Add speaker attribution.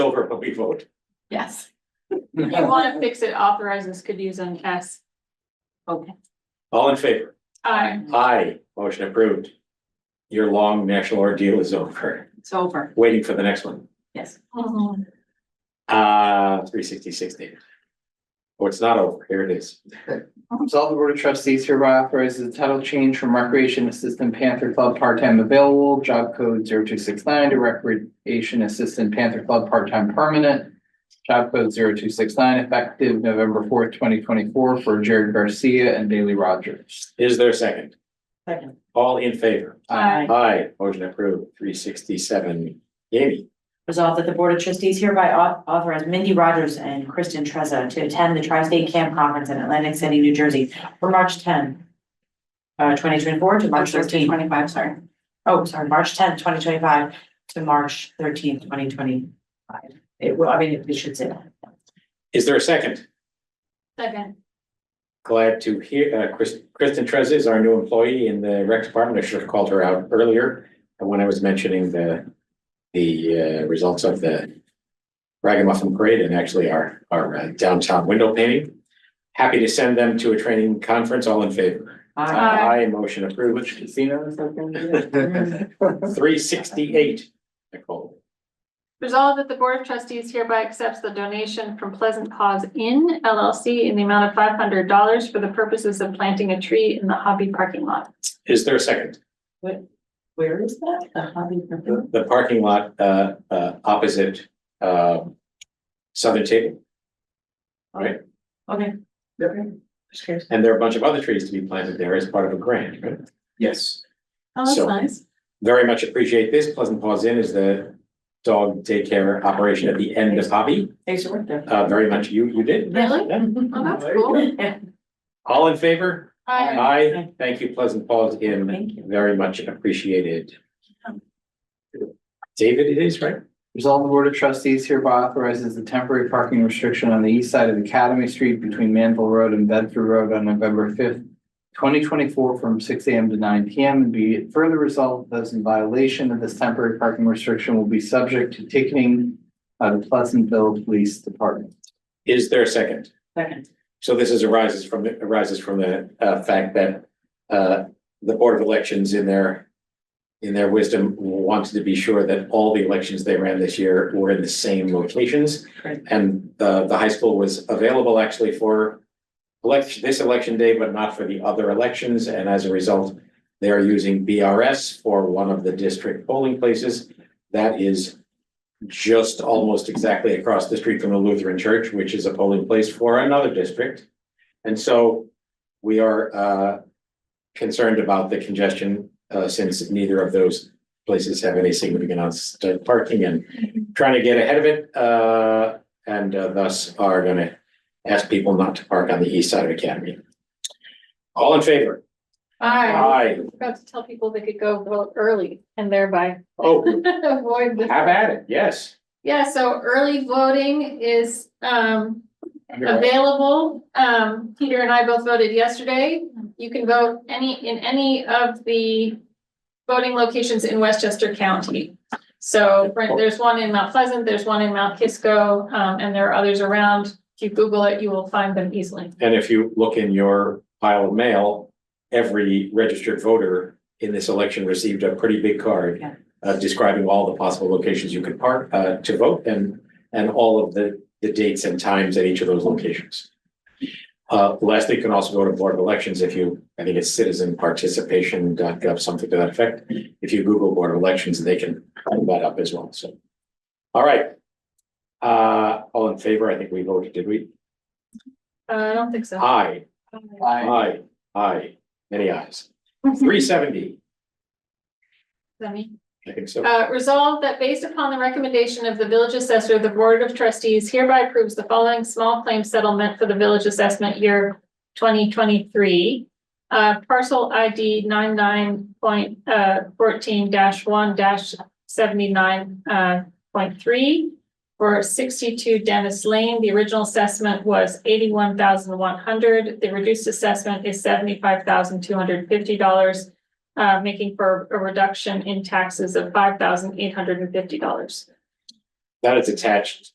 Speaker 1: over, but we vote.
Speaker 2: Yes. If you want to fix it, authorize this could use an S.
Speaker 3: Okay.
Speaker 1: All in favor?
Speaker 2: I,
Speaker 1: Aye, motion approved. Your long national ordeal is over.
Speaker 3: It's over.
Speaker 1: Waiting for the next one.
Speaker 3: Yes.
Speaker 1: Uh, three sixty-six David. Oh, it's not over. Here it is.
Speaker 4: Resolve the Board of Trustees hereby authorizes the title change from Recreation Assistant Panther Club part-time available, job code zero two six nine to Recreation Assistant Panther Club part-time permanent. Job code zero two six nine effective November fourth, twenty twenty-four for Jared Garcia and Bailey Rogers.
Speaker 1: Is there a second?
Speaker 3: Second.
Speaker 1: All in favor?
Speaker 2: Aye.
Speaker 1: Aye, motion approved. Three sixty-seven Amy.
Speaker 3: Resolved that the Board of Trustees hereby au- authorize Mindy Rogers and Kristen Trezza to attend the Tri-State Camp Conference in Atlantic City, New Jersey from March ten. Uh, twenty twenty-four to March thirteen.
Speaker 2: twenty-five, sorry.
Speaker 3: Oh, sorry, March tenth, twenty twenty-five to March thirteenth, twenty twenty-five. It will, I mean, we should say that.
Speaker 1: Is there a second?
Speaker 2: Second,
Speaker 1: Glad to hear, uh, Chris, Kristen Trez is our new employee in the rec department. I should have called her out earlier. And when I was mentioning the, the, uh, results of the ragamuffin parade and actually our, our uh, downtown window painting. Happy to send them to a training conference. All in favor?
Speaker 3: Uh,
Speaker 2: Aye.
Speaker 1: Aye, motion
Speaker 4: Which
Speaker 1: approved.
Speaker 4: casino is that going
Speaker 3: Mhm.
Speaker 4: to be?
Speaker 1: Three sixty-eight, Nicole.
Speaker 2: resolve that the Board of Trustees hereby accepts the donation from Pleasant Paws Inn LLC in the amount of five hundred dollars for the purposes of planting a tree in the hobby parking lot.
Speaker 1: Is there a second?
Speaker 3: Where is that? The hobby.
Speaker 1: The the parking lot, uh, uh, opposite, uh, southern table.
Speaker 3: Okay. Okay. Just curious.
Speaker 1: And there are a bunch of other trees to be planted there as part of a grant, right?
Speaker 4: Yes.
Speaker 2: Oh,
Speaker 1: So-
Speaker 2: nice.
Speaker 1: Very much appreciate this. Pleasant Paws Inn is the dog daycare operation at the end of Hobby.
Speaker 3: They used to work there.
Speaker 1: Uh, very much you, you did.
Speaker 2: Really?
Speaker 1: Yeah.
Speaker 2: Oh, that's cool.
Speaker 3: Yeah.
Speaker 1: All in favor?
Speaker 2: I,
Speaker 1: Aye. Thank you, Pleasant Paws Inn.
Speaker 3: Thank you. Um.
Speaker 1: Very much appreciated. David, it is, right?
Speaker 4: Resolve the Board of Trustees hereby authorizes the temporary parking restriction on the east side of Academy Street between Manville Road and Bedford Road on November fifth, twenty twenty-four from six AM to nine PM and be it further resolved, those in violation of this temporary parking restriction will be subject to ticketing by the Pleasantville Police Department.
Speaker 1: Is there a second?
Speaker 3: Second.
Speaker 1: So this is arises from, the arises from the uh fact that uh the Board of Elections in their. In their wisdom wanted to be sure that all the elections they ran this year were in the same locations.
Speaker 3: Right.
Speaker 1: And the the high school was available actually for. Election, this election day, but not for the other elections, and as a result. They are using BRS for one of the district polling places. That is. Just almost exactly across the street from the Lutheran Church, which is a polling place for another district. And so we are uh concerned about the congestion uh since neither of those places have any significant on-site parking and trying to get ahead of it uh and uh, thus are gonna ask people not to park on the east side of Academy. All in favor?
Speaker 2: I
Speaker 1: Aye.
Speaker 2: forgot to tell people they could go vote early and thereby
Speaker 1: Oh,
Speaker 2: avoid the.
Speaker 1: have at it. Yes.
Speaker 2: Yeah, so early voting is um available. Um, Peter and I both voted yesterday. You can vote any, in any of the voting locations in Westchester County. So right, there's one in Mount Pleasant, there's one in Mount Kisco, um, and there are others around. If you Google it, you will find them easily.
Speaker 1: And if you look in your pile of mail, every registered voter in this election received a pretty big card
Speaker 3: Yeah.
Speaker 1: uh, describing all the possible locations you could park, uh, to vote and, and all of the, the dates and times at each of those locations. Uh, lastly, you can also go to Board of Elections if you, I think it's citizenparticipation.gov, something to that effect. If you Google Board of Elections, they can bring that up as well, so. All right. Uh, all in favor, I think we voted, did we?
Speaker 2: Uh, I don't think so.
Speaker 1: Aye. Aye, aye, many ayes. Uh, Three seventy,
Speaker 2: Let me-
Speaker 1: I think so.
Speaker 2: Uh, resolved that based upon the recommendation of the village assessor, the board of trustees hereby approves the following small claim settlement for the village assessment year twenty twenty-three. Uh, parcel ID 9914 uh, one seventy-nine, uh, point three. For sixty-two Dennis Lane, the original assessment was eighty-one thousand one hundred, the reduced assessment is seventy-five thousand two hundred fifty dollars uh, making for a reduction in taxes of five thousand eight hundred and fifty dollars.
Speaker 1: That is attached